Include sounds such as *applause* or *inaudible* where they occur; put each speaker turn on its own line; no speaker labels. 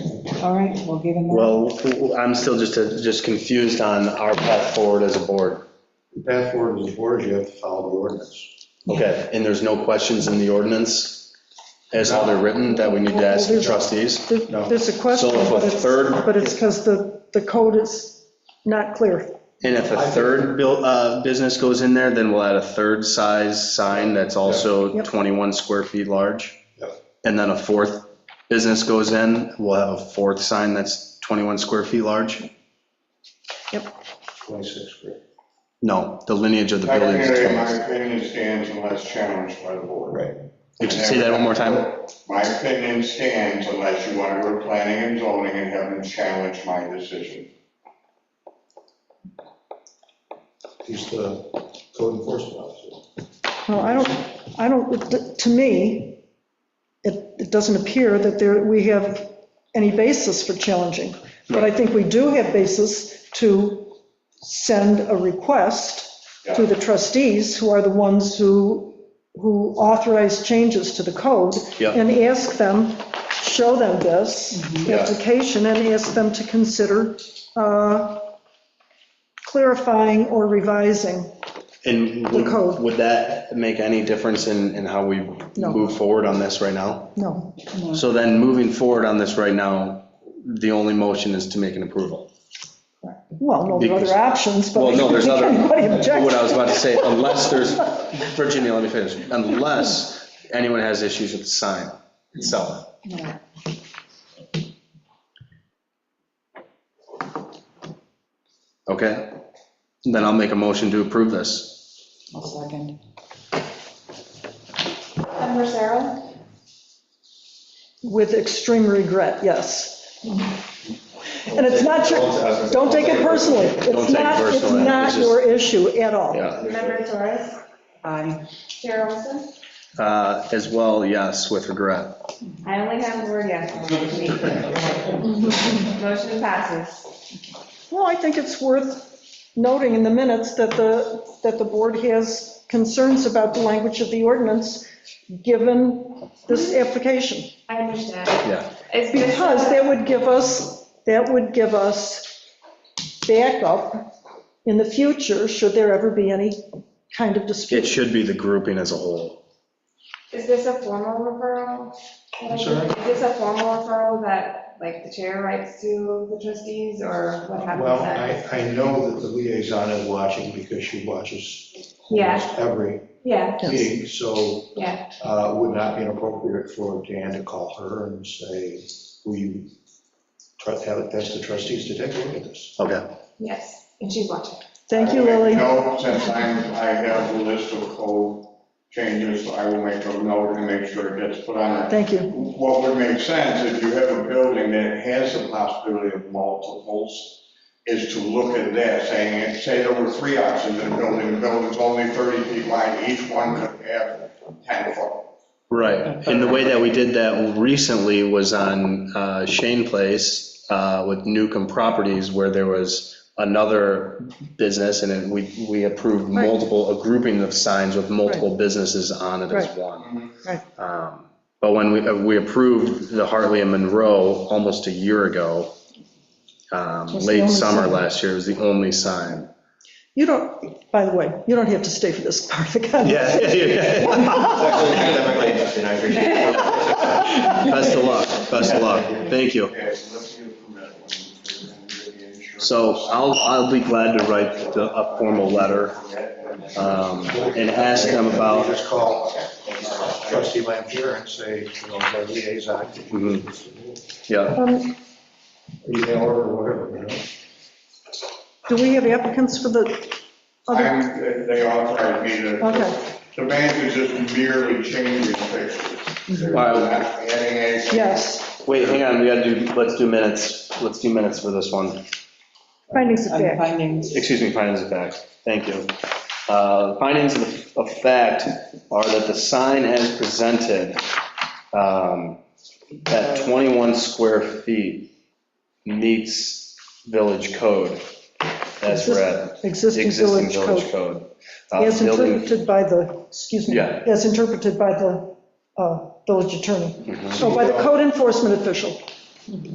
All right, we'll give him that.
Well, I'm still just, just confused on our path forward as a board.
The path forward as a board, you have to follow the ordinance.
Okay, and there's no questions in the ordinance as how they're written that we need to ask the trustees?
No.
There- There's a question,
So if a
but it's,
third-
but it's because the, the code is not clear.
And if a third buil- uh, business goes in there, then we'll add a third size sign that's also
Yep.
21 square feet large?
Yep.
And then a fourth business goes in, we'll have a fourth sign that's 21 square feet large?
26 square.
No, the lineage of the building is
Technically, in
21.
my opinion stands unless challenged by the board.
Right.
Would you Say that one more time.
My opinion stands unless you want to go to planning and zoning and have them challenge my decision.
He's the code enforcement officer.
Well, I don't, I don't, to me, it, it doesn't appear that there, we have any basis for challenging. But I think we do have basis to send a request to the trustees, who are the ones who, who authorize changes to the code.
Yeah. Mm-hmm.
And ask them, show them this
Yeah.
application and ask them to consider uh, clarifying or revising.
And would
code.
would that make any difference in, in how we
No.
move forward on this right now?
No,
So then moving forward on this right now, the only motion is to make an approval.
well, no, there are other options, but.
Well, no, there's other,
*laughs* Anybody object?
what I was about to say,
*laughs*
unless there's, Virginia, let me finish. Unless anyone has issues with the sign itself.
No.
Okay, then I'll make a motion to approve this.
I'll second.
Member Sarah?
With extreme regret, yes.
Mm-hmm.
And it's not your, don't take it personally.
Don't
It's
take it
not, it's
personally,
not
it's just-
your issue at all.
Yeah,
Member Torres?
Aye.
Chair Olson?
Uh, as well, yes, with regret.
I only have the word yes. on it, to be clear. Motion passes.
Well, I think it's worth noting in the minutes that the, that the board has concerns about the language of the ordinance, given this application.
I understand.
Yeah,
Is this-
Because that would give us, that would give us backup in the future, should there ever be any kind of
it
dispute.
should be the grouping as a whole.
Is this a formal referral?
I'm sorry?
Is this a formal referral that, like, the chair writes to the trustees, or what happens
Well, I,
next?
I know that the liaison is watching because she watches
Yeah.
almost every
Yeah,
meeting, so
yeah,
uh, it would not be inappropriate for Dan to call her and say, will you tr- have it, that's the trustees to take a look at this.
Okay.
yes, and she's watching.
Thank you,
I will
Lily.
make note, since I'm, I have a list of code changes, I will make a note and make sure it gets put on. there.
Thank you.
What would make sense, if you have a building that has the possibility of multiples, is to look at that, saying, say there were three options in a building, the building's only 30 feet wide, each one could have 10 foot.
Right, and the way that we did that recently was on uh, Shane Place uh, with Newcomb Properties, where there was another business, and then we, we approved
Right.
multiple, a grouping of signs with multiple businesses on it as
Right.
one.
Right.
Um, But when we, uh, we approved the Hartley and Monroe almost a year ago,
Was
um,
the
late
only
summer
sign.
last year, was the only sign.
You don't, by the way, you don't have to stay for this part of the conversation.
Yeah. *laughs* Best of luck, best of luck, thank you.
Okay, so let's get a permit when we get the insurance.
So I'll, I'll be glad to write the- a formal letter um, and ask them
You
about,
Just call trustee Lampier and say, you know, the liaison,
Mhm.
*laughs*
yeah,
Um,
email her or whatever, you know.
Do we have applicants for the other?
I'm, uh, they authorized me to.
Okay,
The bank is just merely changing pictures. They're not adding anything.
yes,
wait, hang on, we gotta do, let's do minutes, let's do minutes for this one.
findings of
I'm
fact.
finding,
Excuse me, findings of fact, thank you. Uh, Findings of of fact are that the sign as presented um, at 21 square feet meets village code as read.
Existing
Existing
village code.
village code. Uh,
As
building-
interpreted by the, excuse me,
Yeah.
as interpreted by the uh, village attorney. So by the code enforcement official.